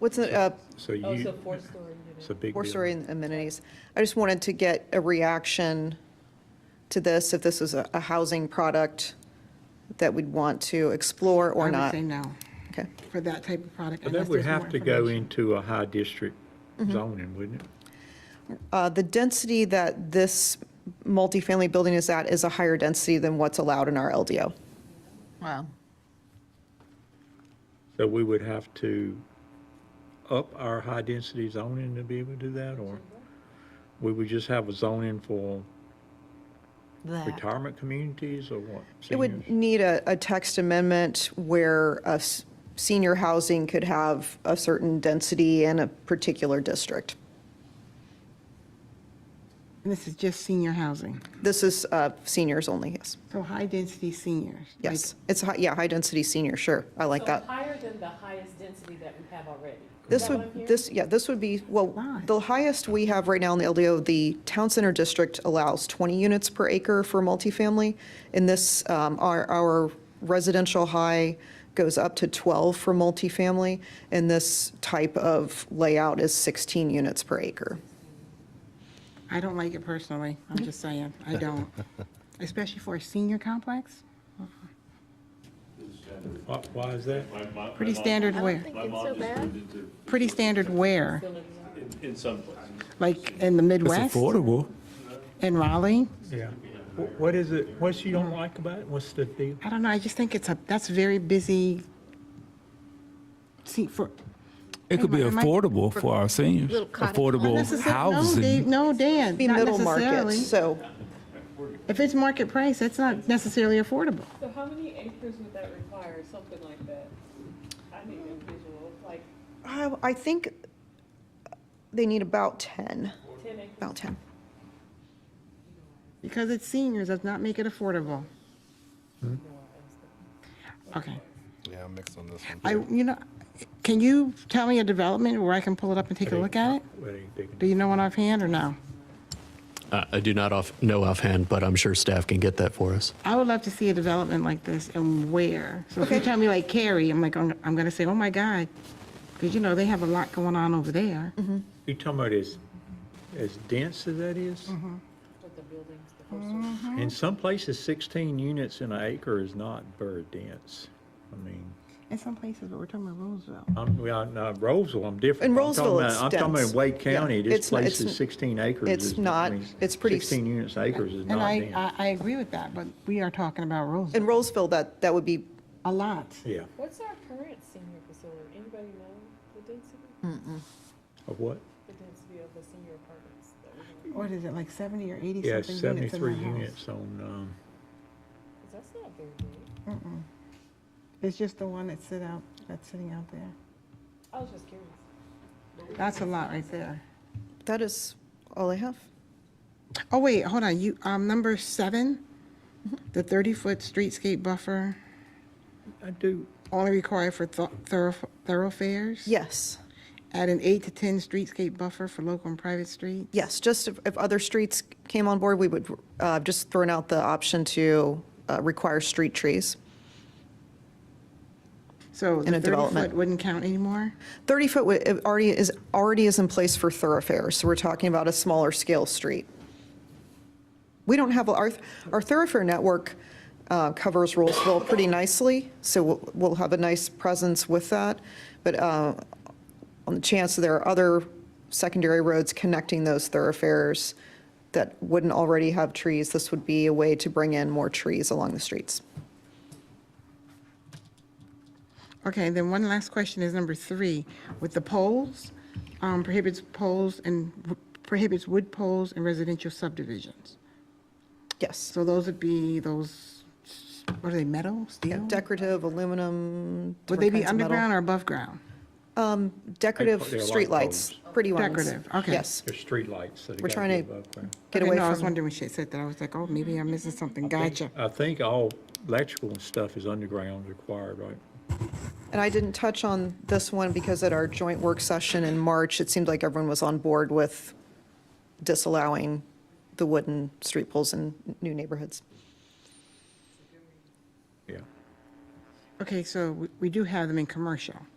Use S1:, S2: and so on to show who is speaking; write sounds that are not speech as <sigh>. S1: What's, the, uh,
S2: So
S3: Oh, so
S2: you,
S3: four-story unit.
S2: it's a big deal.
S1: four-story amenities? I just wanted to get a reaction to this, if this is a a housing product that we'd want to explore or not.
S4: I would say no
S1: Okay.
S4: for that type of product.
S2: But
S4: unless
S2: that would
S4: there's more
S2: have to go
S4: information.
S2: into a high district
S4: Mm-hmm.
S2: zoning, wouldn't it?
S1: Uh, The density that this multifamily building is at is a higher density than what's allowed in our LDO.
S5: Wow.
S2: So we would have to up our high-density zoning to be able to do that, or we would just have a zoning for
S5: That.
S2: retirement communities or what?
S1: It would
S2: Seniors?
S1: need a, a text amendment where uh, s- senior housing could have a certain density in a particular district.
S4: And this is just senior housing,
S1: This is uh, seniors only, yes.
S4: so high-density seniors. like-
S1: Yes, it's, hi- yeah, high-density senior, sure, I like
S3: So
S1: that.
S3: higher than the highest density that we have already. Is
S1: This
S3: that what I'm
S1: would,
S3: hearing?
S1: this, yeah, this would be, well,
S4: Lot.
S1: the highest we have right now in the LDO, the Town Center District allows 20 units per acre for multifamily. In this, um, our, our residential high goes up to 12 for multifamily, and this type of layout is 16 units per acre.
S4: I don't like it personally, I'm just saying,
S1: <laughs>
S4: I don't. Especially for a senior complex,
S2: Why- Why is that?
S6: My mom,
S4: pretty standard wear,
S6: my mom just moved into,
S4: pretty standard wear,
S6: in, in some places.
S4: like in the Midwest,
S7: é affordable.
S4: in Raleigh.
S2: Yeah. Wh- What is it, what you don't like about it? What's the deal?
S4: I don't know, I just think it's a, that's very busy. See, for,
S7: It could be
S4: Am I-
S7: affordable for our seniors, affordable
S4: necessarily, no, Dave,
S7: housing.
S4: no, Dan,
S1: Be
S4: not
S1: middle market,
S4: necessarily.
S1: so
S4: If it's market price, that's not necessarily affordable.
S3: So how many acres would that require, something like that? I need a visual, like
S1: I I think they need about 10,
S3: 10 acres.
S1: about 10.
S4: Because it's seniors, does not make it affordable. Okay.
S8: Yeah, I'm mixed on this one.
S4: I, you know, can you tell me a development where I can pull it up and take a look at it?
S2: What do you think?
S4: Do you know one offhand or no?
S9: Uh, I do not off, know offhand, but I'm sure staff can get that for us.
S4: I would love to see a development like this and where. So if you tell me like Cary, I'm like, I'm I'm gonna say, oh my God. Because you know, they have a lot going on over there.
S2: You talking about as, as dense as that is?
S4: Mm-hmm.
S2: In some places, 16 units in an acre is not very dense. I mean,
S4: In some places, but we're talking about Roseville.
S2: I'm, well, no, Roseville, I'm different.
S1: In
S2: I'm talking
S1: Roseville,
S2: about-
S1: it's
S2: I'm talking about
S1: dense.
S2: Wake
S1: Yeah,
S2: County,
S1: it's
S2: this
S1: not-
S2: place
S1: it's-
S2: is 16 acres.
S1: it's
S2: is- I
S1: not-
S2: mean,
S1: it's pretty s-
S2: 16 units acres is
S4: And
S2: not
S4: I,
S2: dense.
S4: I, I agree with that, but we are talking about Roseville,
S1: In Roseville, that, that would be,
S4: a lot.
S2: Yeah,
S3: What's our current senior facility? Anybody know the density?
S2: of what?
S3: The density of the senior apartments that we have?
S4: What is it, like 70 or 80
S2: Yeah,
S4: something units in
S2: 73
S4: that house?
S2: units on, um,
S3: 'Cause that's not very big.
S4: It's just the one that's sit out, that's sitting out there.
S3: I was just curious.
S4: That's a lot right there.
S1: that is all I have.
S4: Oh, wait, hold on, you, um, number seven, the 30-foot streetscape buffer,
S2: I do,
S4: only required for thor- thorough- thoroughfares?
S1: Yes,
S4: Add an eight to 10 streetscape buffer for local and private street?
S1: yes, just if, if other streets came on board, we would, uh, just throwing out the option to uh, require street trees.
S4: So
S1: In a
S4: the
S1: development.
S4: 30-foot wouldn't count anymore?
S1: 30-foot already is, already is in place for thoroughfares, so we're talking about a smaller scale street. We don't have, our, our thoroughfare network uh, covers Roseville pretty nicely, so we'll- we'll have a nice presence with that, but uh, on the chance that there are other secondary roads connecting those thoroughfares that wouldn't already have trees, this would be a way to bring in more trees along the streets.
S4: Okay, and then one last question is number three, with the poles, um, prohibits poles and prohibits wood poles in residential subdivisions.
S1: Yes.
S4: So those would be those, what are they, metal, steel?
S1: Decorative, aluminum,
S4: Would they be
S1: different kinds of metal.
S4: underground or above ground?
S1: Decorative
S2: They- they're light
S1: streetlights,
S2: bulbs.
S1: pretty ones.
S4: Decorative, okay.
S1: Yes,
S2: there's streetlights that
S1: We're
S2: have got
S1: trying
S2: to
S1: to-
S2: be above ground.
S1: get
S4: Okay,
S1: away
S4: no, I was
S1: from,
S4: wondering when she said that, I was like, oh, maybe I'm missing something, gotcha.
S2: I think all electrical and stuff is underground required, right?
S1: and I didn't touch on this one because at our joint work session in March, it seemed like everyone was on board with disallowing the wooden street poles in new neighborhoods.
S2: Yeah.
S4: Okay, so we- we do have them in commercial.